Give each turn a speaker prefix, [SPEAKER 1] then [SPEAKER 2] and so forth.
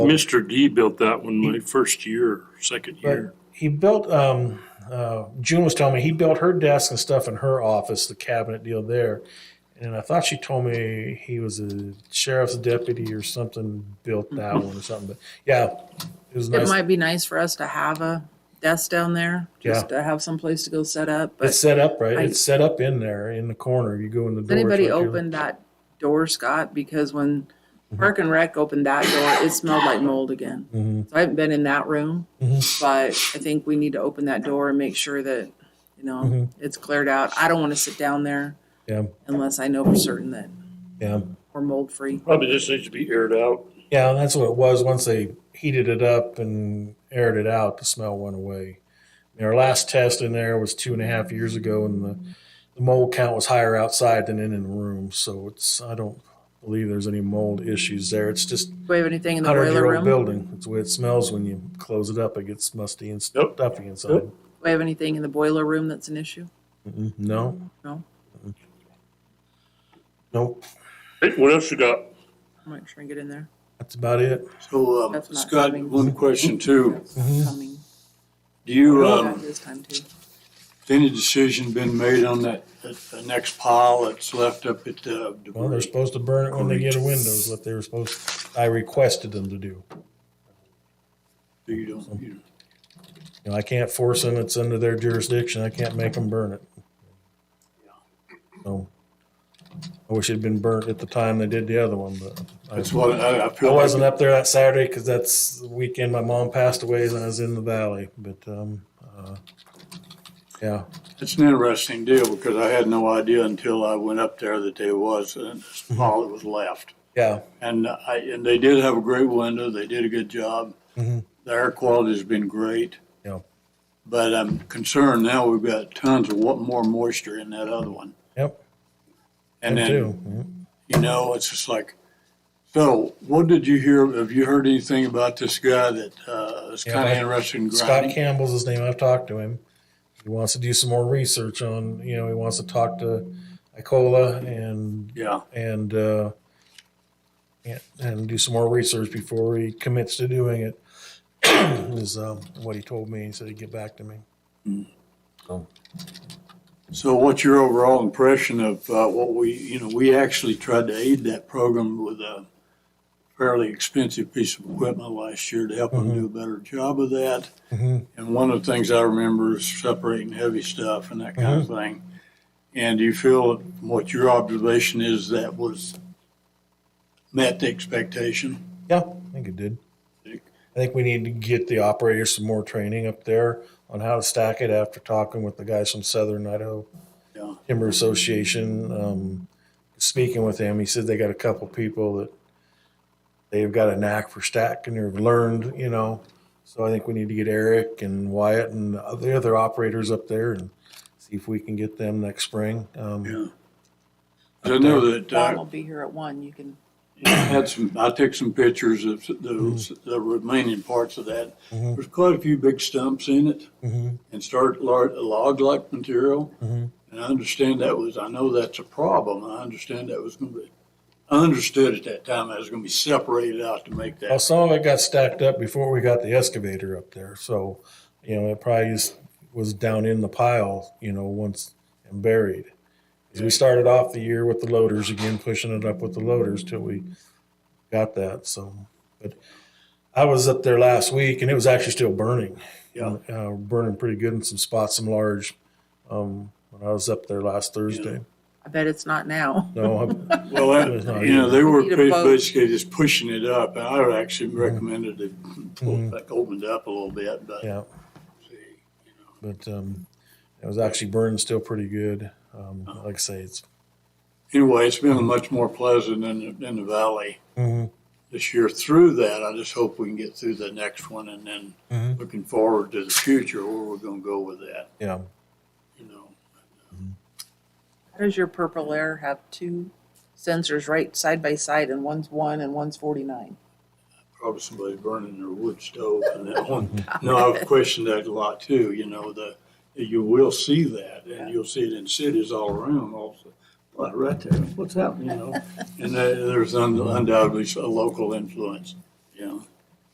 [SPEAKER 1] Mr. D built that one my first year, second year.
[SPEAKER 2] he built um uh, June was telling me he built her desk and stuff in her office, the cabinet deal there. And I thought she told me he was a sheriff's deputy or something built that one or something. But yeah, it was
[SPEAKER 3] Mm-hmm. It
[SPEAKER 2] nice.
[SPEAKER 3] might be nice for us to have a desk down there, just to have some place to go set up. But
[SPEAKER 2] it's set up right.
[SPEAKER 3] I-
[SPEAKER 2] it's set up in there in the corner. You go in the door.
[SPEAKER 3] Has anybody
[SPEAKER 2] it's right there.
[SPEAKER 3] opened that door, Scott? Because when
[SPEAKER 2] Mm-hmm.
[SPEAKER 3] Park and Rec opened that door, it smelled like mold again.
[SPEAKER 2] Mhm.
[SPEAKER 3] So I haven't been in that room,
[SPEAKER 2] Mm-hmm.
[SPEAKER 3] but I think we need to open that door and make sure that, you know, it's cleared out. I don't want to sit down there
[SPEAKER 2] Mm-hmm. Yeah,
[SPEAKER 3] unless I know for certain that
[SPEAKER 2] yeah,
[SPEAKER 3] we're mold free.
[SPEAKER 1] Probably just needs to be aired out.
[SPEAKER 2] yeah. That's what it was. Once they heated it up and aired it out, the smell went away. And our last test in there was two and a half years ago, and the the mold count was higher outside than in in the room. So it's I don't believe there's any mold issues there. It's just
[SPEAKER 3] Do we have anything in the
[SPEAKER 2] hundred year
[SPEAKER 3] boiler
[SPEAKER 2] old
[SPEAKER 3] room? Do
[SPEAKER 2] building. It's the way it smells when you close it up. It gets musty and
[SPEAKER 1] Nope.
[SPEAKER 2] stuffy inside.
[SPEAKER 1] Nope.
[SPEAKER 3] we have anything in the boiler room that's an issue?
[SPEAKER 2] Mm-mm. No,
[SPEAKER 3] No?
[SPEAKER 2] nope.
[SPEAKER 1] Hey, what else you got?
[SPEAKER 3] I'm not sure I get in there.
[SPEAKER 2] That's about it.
[SPEAKER 4] So, um,
[SPEAKER 3] That's not
[SPEAKER 4] Scott,
[SPEAKER 3] coming.
[SPEAKER 4] one question
[SPEAKER 2] Mm-hmm.
[SPEAKER 4] too.
[SPEAKER 3] Coming.
[SPEAKER 4] Do you,
[SPEAKER 3] Got
[SPEAKER 4] um,
[SPEAKER 3] This time too.
[SPEAKER 4] has any decision been made on that, that the next pile that's left up at the
[SPEAKER 2] Well, they're
[SPEAKER 4] debris?
[SPEAKER 2] supposed to burn it when they get a windows. What they were supposed, I requested them to do.
[SPEAKER 4] You don't, you don't.
[SPEAKER 2] You know, I can't force them. It's under their jurisdiction. I can't make them burn it. So I wish it'd been burnt at the time they did the other one, but I,
[SPEAKER 4] That's what, I, I
[SPEAKER 2] I
[SPEAKER 4] feel
[SPEAKER 2] wasn't
[SPEAKER 4] like,
[SPEAKER 2] up there that Saturday because that's the weekend my mom passed away and I was in the valley. But um, uh, yeah,
[SPEAKER 4] it's an interesting deal because I had no idea until I went up there that there was a
[SPEAKER 2] Mm-hmm.
[SPEAKER 4] pile that was left.
[SPEAKER 2] yeah,
[SPEAKER 4] And I, and they did have a great window. They did a good job.
[SPEAKER 2] Mhm.
[SPEAKER 4] The air quality's been great.
[SPEAKER 2] yeah,
[SPEAKER 4] But I'm concerned now we've got tons of wa- more moisture in that other one.
[SPEAKER 2] yep.
[SPEAKER 4] And
[SPEAKER 2] me
[SPEAKER 4] then
[SPEAKER 2] too. Mhm.
[SPEAKER 4] You know, it's just like, so what did you hear? Have you heard anything about this guy that uh, is
[SPEAKER 2] Yeah,
[SPEAKER 4] kind of
[SPEAKER 2] I-
[SPEAKER 4] interested in
[SPEAKER 2] Scott
[SPEAKER 4] grinding?
[SPEAKER 2] Campbell's his name. I've talked to him. He wants to do some more research on, you know, he wants to talk to Icola and
[SPEAKER 4] Yeah,
[SPEAKER 2] and uh, and, and do some more research before he commits to doing it. is um, what he told me. He said he'd get back to me.
[SPEAKER 4] so what's your overall impression of uh, what we, you know, we actually tried to aid that program with a fairly expensive piece of equipment last year to help them
[SPEAKER 2] Mm-hmm.
[SPEAKER 4] do a better job of that.
[SPEAKER 2] Mhm.
[SPEAKER 4] And one of the things I remember is separating heavy stuff and that kind
[SPEAKER 2] Mm-hmm.
[SPEAKER 4] of thing. And do you feel, from what your observation is, that was met the expectation?
[SPEAKER 2] Yeah, I think it did. I think we need to get the operators some more training up there on how to stack it after talking with the guys from Southern Idaho
[SPEAKER 4] Yeah.
[SPEAKER 2] Timber Association. Um, speaking with him, he said they got a couple people that they've got a knack for stacking or learned, you know. So I think we need to get Eric and Wyatt and the other operators up there and see if we can get them next spring. Um,
[SPEAKER 4] Yeah. I know that
[SPEAKER 3] Dawn
[SPEAKER 4] uh,
[SPEAKER 3] will be here at one. You can
[SPEAKER 4] I had some, I took some pictures of those, the remaining parts of that.
[SPEAKER 2] Mhm.
[SPEAKER 4] There's quite a few big stumps in it
[SPEAKER 2] mhm,
[SPEAKER 4] and started lar- log-like material.
[SPEAKER 2] Mhm.
[SPEAKER 4] And I understand that was, I know that's a problem. I understand that was gonna be, I understood at that time that was gonna be separated out to make
[SPEAKER 2] Well,
[SPEAKER 4] that.
[SPEAKER 2] some of it got stacked up before we got the excavator up there, so, you know, it probably just was down in the pile, you know, once and buried. 'Cause we started off the year with the loaders again, pushing it up with the loaders till we got that, so. But I was up there last week and it was actually still burning.
[SPEAKER 4] Yeah.
[SPEAKER 2] Uh, burning pretty good in some spots, some large, um, when I was up there last Thursday.
[SPEAKER 3] I bet it's not now.
[SPEAKER 2] No, I-
[SPEAKER 4] Well,
[SPEAKER 2] There's no
[SPEAKER 4] that- you know, they were
[SPEAKER 3] Need a boat.
[SPEAKER 4] basically just pushing it up. And I would actually recommended they pull it back, opened up a little bit, but.
[SPEAKER 2] yeah, but, um, it was actually burning still pretty good. Um, like I say, it's
[SPEAKER 4] anyway, it's been much more pleasant in the, in the valley
[SPEAKER 2] Mhm.
[SPEAKER 4] this year through that. I just hope we can get through the next one and then
[SPEAKER 2] Mhm.
[SPEAKER 4] looking forward to the future where we're going to go with that,
[SPEAKER 2] Yeah.
[SPEAKER 4] you know.
[SPEAKER 3] How Does your purple air have two sensors right side by side and one's one and one's forty-nine?
[SPEAKER 4] Probably somebody burning their wood stove and that one. No, I've questioned that a lot too, you know, the, you will see that and you'll see it in cities all around also. But right there, what's happening, you know? And there- there's undoubtedly a local influence, you know.